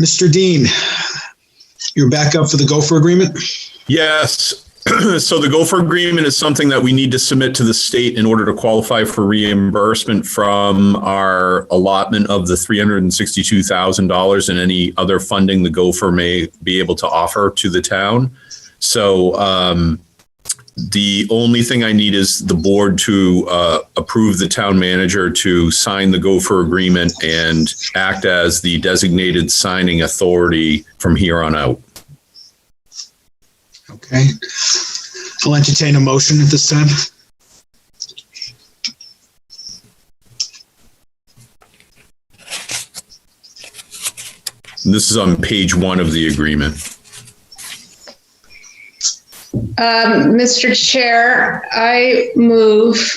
Mr. Dean, you're back up for the gopher agreement? Yes. so the gopher agreement is something that we need to submit to the state in order to qualify for reimbursement from our allotment of the $362,000 and any other funding the gopher may be able to offer to the town. So um, the only thing I need is the board to uh, approve the town manager to sign the gopher agreement and act as the designated signing authority from here on out. Okay. I'll entertain a motion at this time. This is on page one of the agreement. Um, Mr. Chair, I move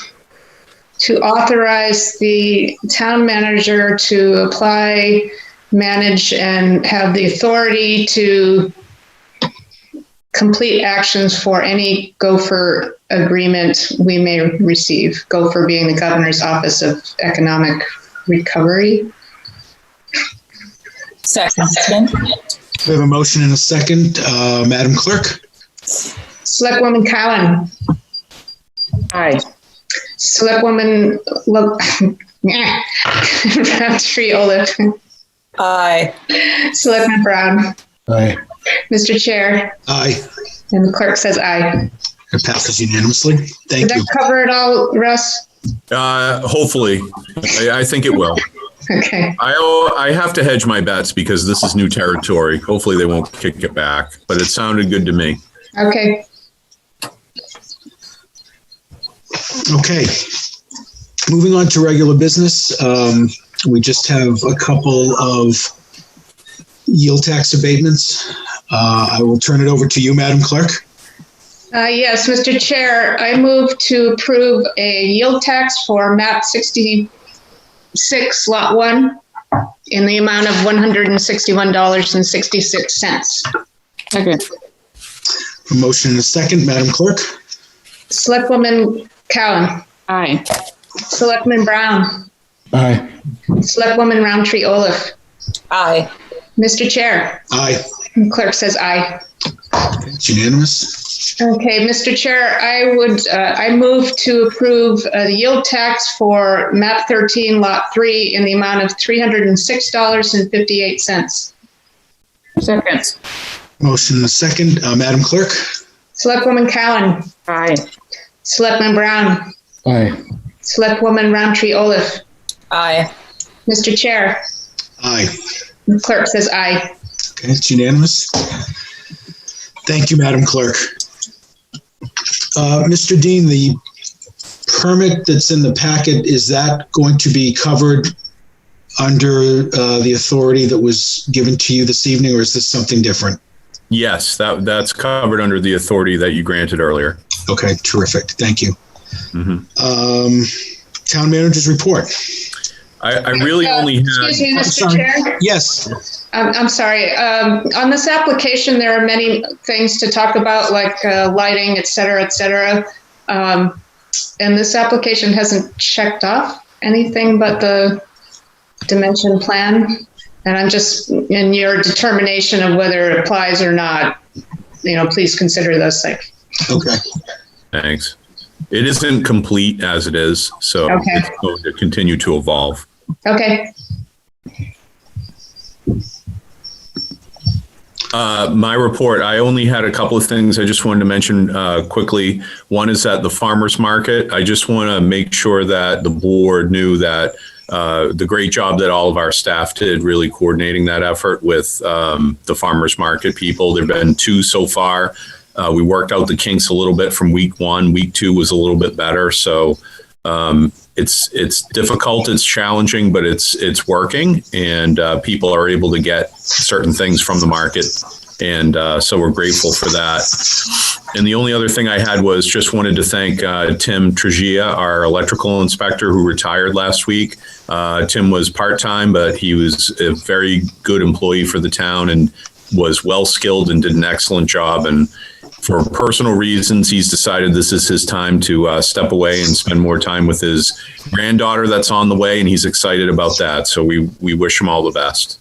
to authorize the town manager to apply, manage, and have the authority to complete actions for any gopher agreement we may receive, gopher being the governor's office of economic recovery. Second. We have a motion and a second. Uh, Madam Clerk? Selectwoman Cowan, Aye. Selectwoman Lo- Roundtree Olaf. Aye. Selectman Brown. Aye. Mr. Chair, Aye. and the clerk says aye. It passes unanimously. Did Thank you. that cover it all, Russ? Uh, hopefully, I, I think it will. Okay, I owe- I have to hedge my bets because this is new territory. Hopefully, they won't kick it back. But it sounded good to me. okay. Okay. Moving on to regular business, um, we just have a couple of yield tax abatements. Uh, I will turn it over to you, Madam Clerk. Uh, yes, Mr. Chair, I move to approve a yield tax for map sixty-six, lot one, in the amount of one hundred and sixty-one dollars and sixty-six cents. Second. A motion and a second, Madam Clerk? Selectwoman Cowan, Aye. Selectman Brown, Aye. Selectwoman Roundtree Olaf. Aye. Mr. Chair, Aye. and clerk says aye. It's unanimous. Okay, Mr. Chair, I would, uh, I move to approve uh, the yield tax for map 13, lot 3, in the amount of $306.58. Second. Motion and a second, uh, Madam Clerk? Selectwoman Cowan, Aye. Selectman Brown, Aye. Selectwoman Roundtree Olaf. Aye. Mr. Chair, Aye. clerk says aye. Okay, it's unanimous. Thank you, Madam Clerk. Uh, Mr. Dean, the permit that's in the packet, is that going to be covered under uh, the authority that was given to you this evening, or is this something different? Yes, that that's covered under the authority that you granted earlier. Okay, terrific. Thank you. Mhm. Um, Town manager's report. I, I really Uh, only Excuse had me, I'm Mr. sorry. Chair? Yes, I'm, I'm sorry. Um, on this application, there are many things to talk about, like uh, lighting, et cetera, et cetera. Um, and this application hasn't checked off anything but the dimension plan. And I'm just in your determination of whether it applies or not. You know, please consider those things. okay. thanks. It isn't complete as it is, so Okay. it's going to continue to evolve. Okay. Uh, my report, I only had a couple of things I just wanted to mention uh, quickly. One is that the farmer's market, I just want to make sure that the board knew that uh, the great job that all of our staff did really coordinating that effort with um, the farmer's market people. There've been two so far. Uh, we worked out the kinks a little bit from week one. Week two was a little bit better. So um, it's it's difficult, it's challenging, but it's it's working, and uh, people are able to get certain things from the market, and uh, so we're grateful for that. And the only other thing I had was just wanted to thank uh, Tim Tregia, our electrical inspector who retired last week. Uh, Tim was part time, but he was a very good employee for the town and was well skilled and did an excellent job. And for personal reasons, he's decided this is his time to uh, step away and spend more time with his granddaughter that's on the way, and he's excited about that. So we we wish him all the best.